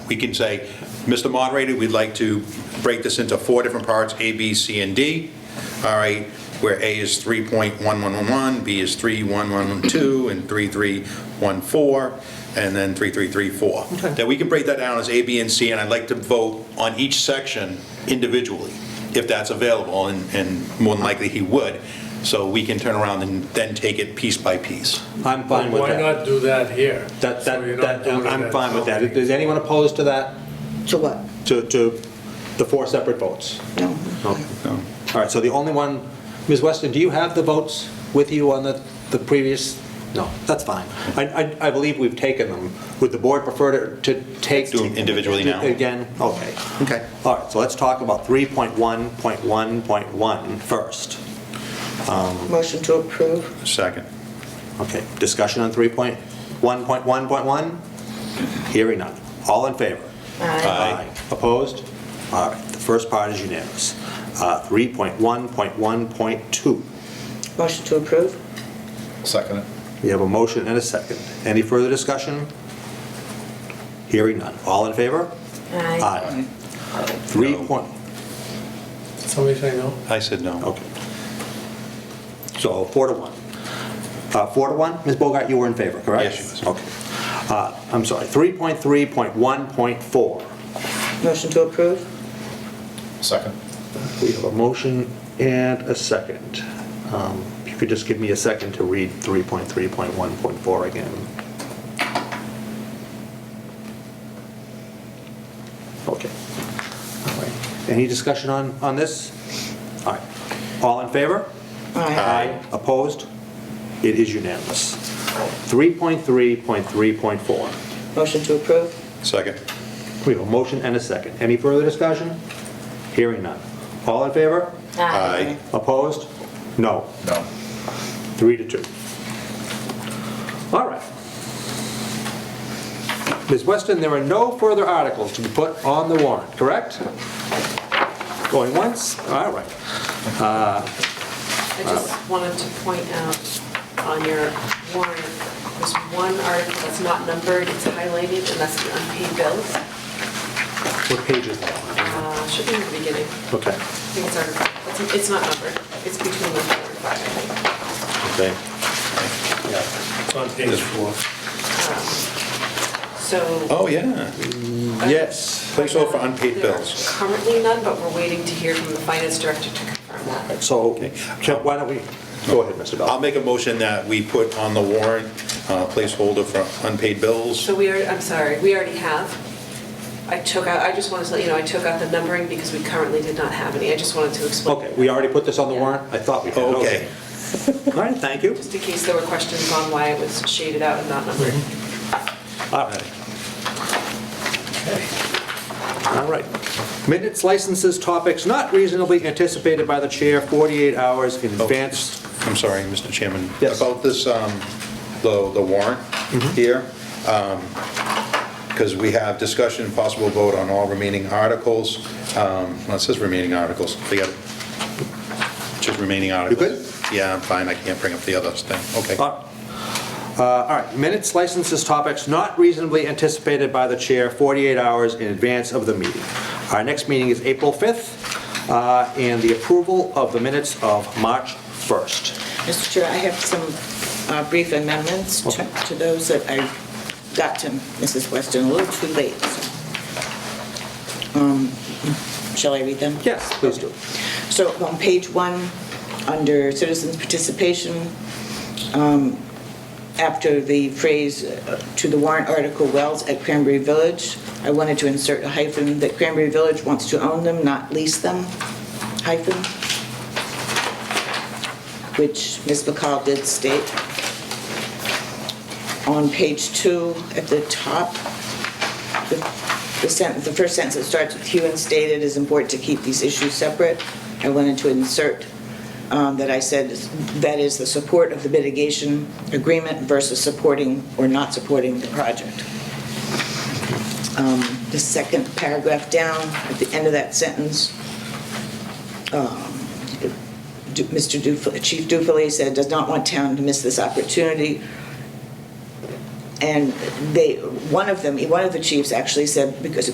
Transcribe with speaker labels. Speaker 1: we can say, Mr. Moderator, we'd like to break this into four different parts, A, B, C, and D. All right, where A is 3.1111, B is 31112, and 3314, and then 3334. That we can break that down as A, B, and C, and I'd like to vote on each section individually, if that's available, and- and more than likely he would, so we can turn around and then take it piece by piece.
Speaker 2: I'm fine with
Speaker 3: Why
Speaker 2: that.
Speaker 3: not do that here?
Speaker 2: That,
Speaker 3: So you
Speaker 2: that, that,
Speaker 3: don't do it
Speaker 2: I'm
Speaker 3: at
Speaker 2: fine with that.
Speaker 3: something.
Speaker 2: Is anyone opposed to that,
Speaker 4: So what?
Speaker 2: to, to the four separate votes?
Speaker 4: No.
Speaker 2: All right, so the only one, Ms. Weston, do you have the votes with you on the, the previous? No, that's fine. I, I, I believe we've taken them. Would the board prefer to, to take?
Speaker 1: Do them individually now.
Speaker 2: Again, okay.
Speaker 1: Okay.
Speaker 2: All right, so let's talk about 3.1.1.1 first.
Speaker 4: Motion to approve?
Speaker 1: Second.
Speaker 2: Okay, discussion on 3.1.1.1? Hearing none. All in favor?
Speaker 4: Aye.
Speaker 2: Opposed? All right, the first part is unanimous. Uh, 3.1.1.2.
Speaker 4: Motion to approve?
Speaker 5: Second it.
Speaker 2: We have a motion and a second. Any further discussion? Hearing none. All in favor? Aye. Three
Speaker 1: No.
Speaker 2: point,
Speaker 3: Somebody say no?
Speaker 1: I said no.
Speaker 2: okay. So four to one. Uh, Four to one? Ms. Bogart, you were in favor, correct?
Speaker 1: Yes, she was.
Speaker 2: Okay. Uh, I'm sorry, 3.3.1.4.
Speaker 4: Motion to approve?
Speaker 5: Oh, Second.
Speaker 2: We have a motion and a second. Um, If you could just give me a second to read 3.3.1.4 again. Okay. All right. Any discussion on, on this? All right. All in favor? Opposed? It is unanimous. 3.3.3.4.
Speaker 4: Motion to approve?
Speaker 1: Second.
Speaker 2: We have a motion and a second. Any further discussion? Hearing none. All in favor?
Speaker 1: Aye.
Speaker 2: Opposed? No.
Speaker 5: No.
Speaker 2: Three to two. All right. Ms. Weston, there are no further articles to be put on the warrant, correct? Going once? All right.
Speaker 6: I just wanted to point out on your warrant, there's one article that's not numbered, it's highlighted, and that's the unpaid bills.
Speaker 2: What page is that?
Speaker 6: Uh, Should be in the beginning. I
Speaker 2: Okay,
Speaker 6: think it's article, it's- it's not numbered. It's between the four and five, I think.
Speaker 2: okay.
Speaker 3: It's on page four.
Speaker 6: So
Speaker 1: Oh, yeah.
Speaker 2: Yes.
Speaker 1: Placeholder for unpaid
Speaker 6: there are
Speaker 1: bills.
Speaker 6: currently none, but we're waiting to hear from the finance director to confirm that.
Speaker 2: So, Kent, why don't we, go ahead, Mr.
Speaker 1: I'll
Speaker 2: Bell.
Speaker 1: make a motion that we put on the warrant uh, placeholder for unpaid bills.
Speaker 6: So we are, I'm sorry, we already have. I took out, I just wanted to let you know, I took out the numbering because we currently did not have any. I just wanted to explain.
Speaker 2: Okay, we already put this on the warrant? I thought we had.
Speaker 1: Okay.
Speaker 2: All right, thank you.
Speaker 6: Just in case there were questions on why it was shaded out and not numbered.
Speaker 2: All right. All right. Minutes, licenses, topics not reasonably anticipated by the chair 48 hours in advance.
Speaker 1: I'm sorry, Mr. Chairman.
Speaker 2: Yes.
Speaker 1: About this, um, the the warrant here, because we have discussion, and possible vote on all remaining articles. Um, Well, it says remaining articles, forget it. Just remaining articles. Yeah, I'm fine, I can't bring up the other thing, okay.
Speaker 2: Uh, All right, minutes, licenses, topics not reasonably anticipated by the chair 48 hours in advance of the meeting. Our next meeting is April 5th, uh, and the approval of the minutes of March 1st.
Speaker 4: Mr. Chair, I have some uh, brief amendments to-
Speaker 2: Okay.
Speaker 4: to those that I got to Mrs. Weston a little too late. so. Um, Shall I read them?
Speaker 2: Yes, please do.
Speaker 4: So on page one, under citizens' participation, um, after the phrase uh, "to the warrant article Wells at Cranberry Village," I wanted to insert a hyphen that Cranberry Village wants to own them, not lease them, hyphen, which Ms. McCall did state. On page two, at the top, the the sentence, the first sentence that starts with "Hewin stated it is important to keep these issues separate." I wanted to insert um, that I said, that is the support of the mitigation agreement versus supporting or not supporting the project. Um, The second paragraph down, at the end of that sentence, um, Du- Mr. Dufil, Chief Dufilly said, does not want town to miss this opportunity And they, one of them, one of the chiefs actually said, because